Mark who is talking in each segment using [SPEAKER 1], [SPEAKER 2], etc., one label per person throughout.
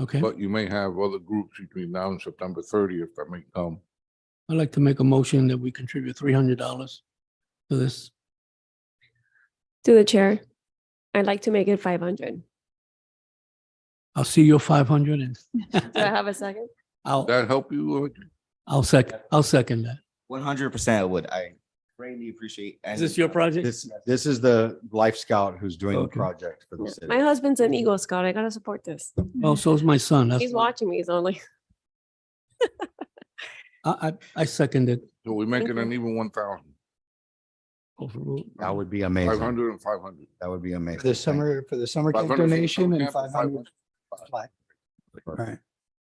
[SPEAKER 1] Okay,
[SPEAKER 2] But you may have other groups between now and September thirtieth that may come.
[SPEAKER 1] I'd like to make a motion that we contribute three hundred dollars to this.
[SPEAKER 3] To the chair, I'd like to make it five hundred.
[SPEAKER 1] I'll see your five hundred
[SPEAKER 3] Do I
[SPEAKER 1] and
[SPEAKER 3] have a second?
[SPEAKER 1] I'll,
[SPEAKER 2] That help you? uh,
[SPEAKER 1] I'll sec, I'll second that.
[SPEAKER 4] One hundred percent would. I greatly appreciate.
[SPEAKER 1] Is
[SPEAKER 4] and-
[SPEAKER 1] this your project?
[SPEAKER 5] This, this is the Life Scout who's doing the
[SPEAKER 1] Okay.
[SPEAKER 5] project for the
[SPEAKER 3] Yeah,
[SPEAKER 5] city.
[SPEAKER 3] My husband's an Eagle Scout. I gotta support this.
[SPEAKER 1] Well, so's my son. That's-
[SPEAKER 3] He's watching me, so I'm like,
[SPEAKER 1] I, I, I second it.
[SPEAKER 2] So we make it
[SPEAKER 3] Thank you.
[SPEAKER 2] an even one thousand,
[SPEAKER 1] Overruled.
[SPEAKER 5] That would be
[SPEAKER 2] five
[SPEAKER 5] amazing.
[SPEAKER 2] hundred and five hundred.
[SPEAKER 5] That would be amazing.
[SPEAKER 6] For the
[SPEAKER 5] Thank-
[SPEAKER 6] summer, for the summer camp
[SPEAKER 2] 500 for the
[SPEAKER 6] donation
[SPEAKER 2] summer
[SPEAKER 6] and
[SPEAKER 2] camp and
[SPEAKER 6] five hundred. Right.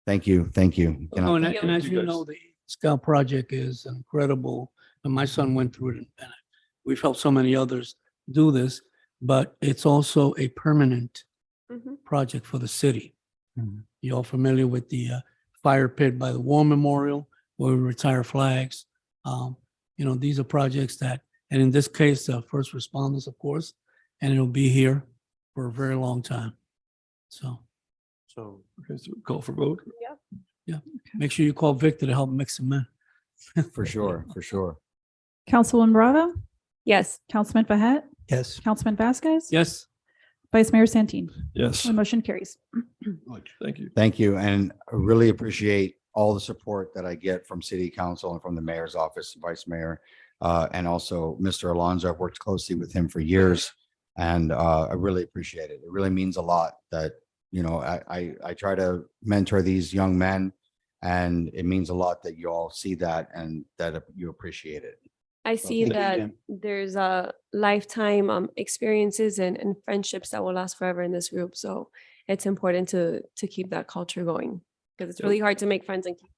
[SPEAKER 5] Thank you, thank you. Can I-
[SPEAKER 1] Oh, And
[SPEAKER 3] thank
[SPEAKER 1] and
[SPEAKER 3] you.
[SPEAKER 1] as you know, the Scout Project is incredible, and my son went through it. and We've helped so many others do this, but it's also a permanent
[SPEAKER 3] mhm.
[SPEAKER 1] project for the city.
[SPEAKER 6] Mhm.
[SPEAKER 1] You all familiar with the uh, fire pit by the War Memorial where we retire flags? Um, You know, these are projects that, and in this case, uh, first responders, of course, and it'll be here for a very long time. So. So. Call for vote?
[SPEAKER 3] Yeah.
[SPEAKER 1] Yeah, make sure you call Victor to help mix them in.
[SPEAKER 5] For sure, for sure.
[SPEAKER 7] Councilwoman Bravo,
[SPEAKER 3] Yes,
[SPEAKER 7] Councilman Behet,
[SPEAKER 6] Yes.
[SPEAKER 7] Councilman Vasquez.
[SPEAKER 1] Yes,
[SPEAKER 7] Vice Mayor Santin.
[SPEAKER 8] Yes.
[SPEAKER 7] The motion carries.
[SPEAKER 8] Thank you.
[SPEAKER 5] Thank you, and I really appreciate all the support that I get from city council and from the mayor's office, vice mayor, uh, and also Mr. Alonso. I've worked closely with him for years, and uh, I really appreciate it. It really means a lot that, you know, I, I, I try to mentor these young men, and it means a lot that you all see that and that you appreciate it.
[SPEAKER 3] I see
[SPEAKER 6] thank you,
[SPEAKER 3] that
[SPEAKER 6] Jim.
[SPEAKER 3] there's a lifetime um experiences and and friendships that will last forever in this group. So it's important to to keep that culture going because it's
[SPEAKER 8] Yep.
[SPEAKER 3] really hard to make friends and keep.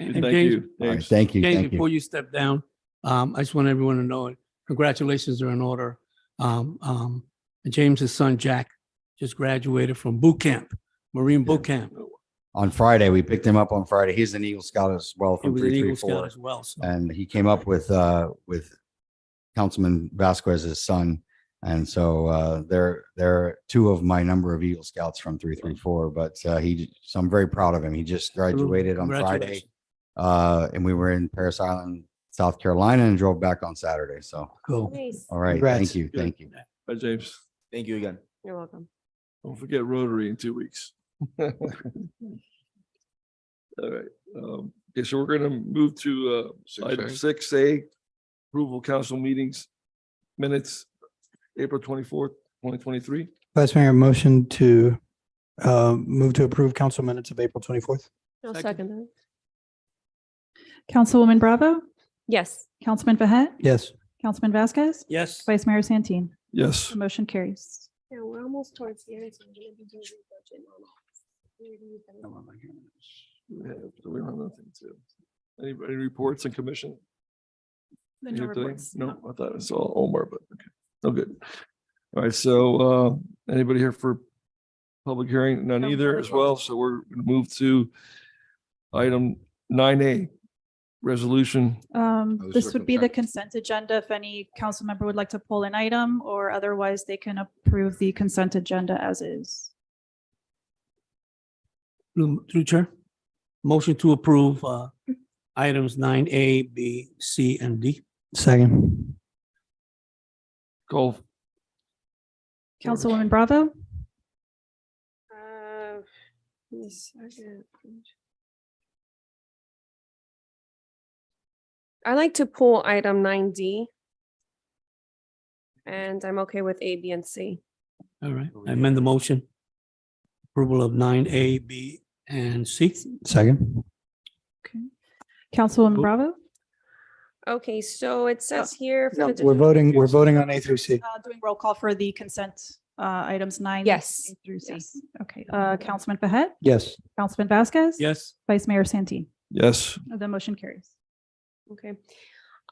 [SPEAKER 1] and
[SPEAKER 8] Thank
[SPEAKER 1] James-
[SPEAKER 8] you.
[SPEAKER 5] All right,
[SPEAKER 8] Thanks.
[SPEAKER 5] thank you,
[SPEAKER 1] James,
[SPEAKER 5] thank you.
[SPEAKER 1] before you step down, um, I just want everyone to know, it. congratulations are in order. Um, um, and James's son, Jack, just graduated from boot camp, Marine boot camp.
[SPEAKER 5] On Friday, we picked him up on Friday. He's an Eagle Scout as well
[SPEAKER 1] He
[SPEAKER 5] from
[SPEAKER 1] was an
[SPEAKER 5] three
[SPEAKER 1] Eagle
[SPEAKER 5] three
[SPEAKER 1] Scout
[SPEAKER 5] four.
[SPEAKER 1] as well, so.
[SPEAKER 5] and he came up with uh with Councilman Vasquez's son. And so uh they're they're two of my number of Eagle Scouts from three three four, but uh he so I'm very proud of him. He just graduated on Friday.
[SPEAKER 1] Congratulations.
[SPEAKER 5] Uh and we were in Paris Island, South Carolina and drove back on Saturday. So
[SPEAKER 1] Cool.
[SPEAKER 3] Nice.
[SPEAKER 5] all right,
[SPEAKER 6] Congrats.
[SPEAKER 5] thank you,
[SPEAKER 8] Good.
[SPEAKER 5] thank you.
[SPEAKER 8] Bye, James.
[SPEAKER 4] Thank you again.
[SPEAKER 3] You're welcome.
[SPEAKER 8] Don't forget Rotary in two weeks. All right. Um, okay, so we're gonna move to uh, item
[SPEAKER 2] 6A.
[SPEAKER 8] six A, approval council meetings, minutes, April twenty-fourth, twenty twenty-three.
[SPEAKER 6] Vice Mayor, motion to uh, move to approve council minutes of April twenty-fourth?
[SPEAKER 3] No
[SPEAKER 1] Second.
[SPEAKER 3] second. that.
[SPEAKER 7] Councilwoman Bravo,
[SPEAKER 3] Yes,
[SPEAKER 7] Councilman Behet,
[SPEAKER 6] Yes.
[SPEAKER 7] Councilman Vasquez,
[SPEAKER 1] Yes.
[SPEAKER 7] Vice Mayor Santin.
[SPEAKER 8] Yes.
[SPEAKER 7] The motion carries.
[SPEAKER 3] yeah, we're almost towards the end. so I'm gonna be doing budget now.
[SPEAKER 8] Yeah, so Oh we don't have nothing to. Anybody reports and commission?
[SPEAKER 7] No
[SPEAKER 8] Here today?
[SPEAKER 7] reports.
[SPEAKER 8] No, I thought I saw Omar, but okay, no good. All right, so uh, anybody here for public hearing? None
[SPEAKER 3] No
[SPEAKER 8] either
[SPEAKER 3] public
[SPEAKER 8] as well, so we're gonna move to item nine A, resolution.
[SPEAKER 7] Um,
[SPEAKER 2] Other
[SPEAKER 7] this would be the
[SPEAKER 2] circumstances.
[SPEAKER 7] consent agenda. If any council member would like to pull an item or otherwise they can approve the consent agenda as is.
[SPEAKER 1] Through through Chair, motion to approve, uh, items nine A, B, C, and D.
[SPEAKER 6] Second.
[SPEAKER 8] Call,
[SPEAKER 7] Councilwoman Bravo,
[SPEAKER 3] Uh, yes, I get it. I like to pull item nine D. And I'm okay with A, B, and C.
[SPEAKER 1] All right, I amend the motion. Approval of nine A, B, and C.
[SPEAKER 6] Second.
[SPEAKER 7] Councilwoman
[SPEAKER 1] Oh.
[SPEAKER 7] Bravo,
[SPEAKER 3] Okay, so it says here. for
[SPEAKER 6] No,
[SPEAKER 3] the
[SPEAKER 6] We're
[SPEAKER 3] different-
[SPEAKER 6] voting, we're voting on A through C.
[SPEAKER 7] uh, doing roll call for the consent, uh, items nine.
[SPEAKER 3] Yes.
[SPEAKER 7] A Through C.
[SPEAKER 3] Yes.
[SPEAKER 7] Okay, uh, Councilman Behet,
[SPEAKER 6] Yes.
[SPEAKER 7] Councilman Vasquez.
[SPEAKER 1] Yes,
[SPEAKER 7] Vice Mayor Santin.
[SPEAKER 8] yes,
[SPEAKER 7] The motion carries.
[SPEAKER 3] Okay.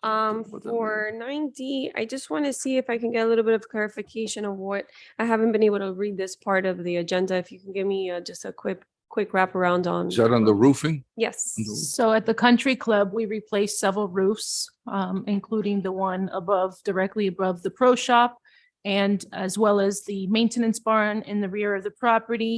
[SPEAKER 3] Um,
[SPEAKER 8] what that
[SPEAKER 3] for nine D, I just want to see if I can get a little bit of clarification of what, I haven't been able to read this part of the agenda. If you can give me uh, just a quick, quick wraparound on,
[SPEAKER 2] Is that on the roofing?
[SPEAKER 3] yes.
[SPEAKER 9] So at the country club, we replaced several roofs, um, including the one above, directly above the pro shop. And as well as the maintenance barn in the rear of the property.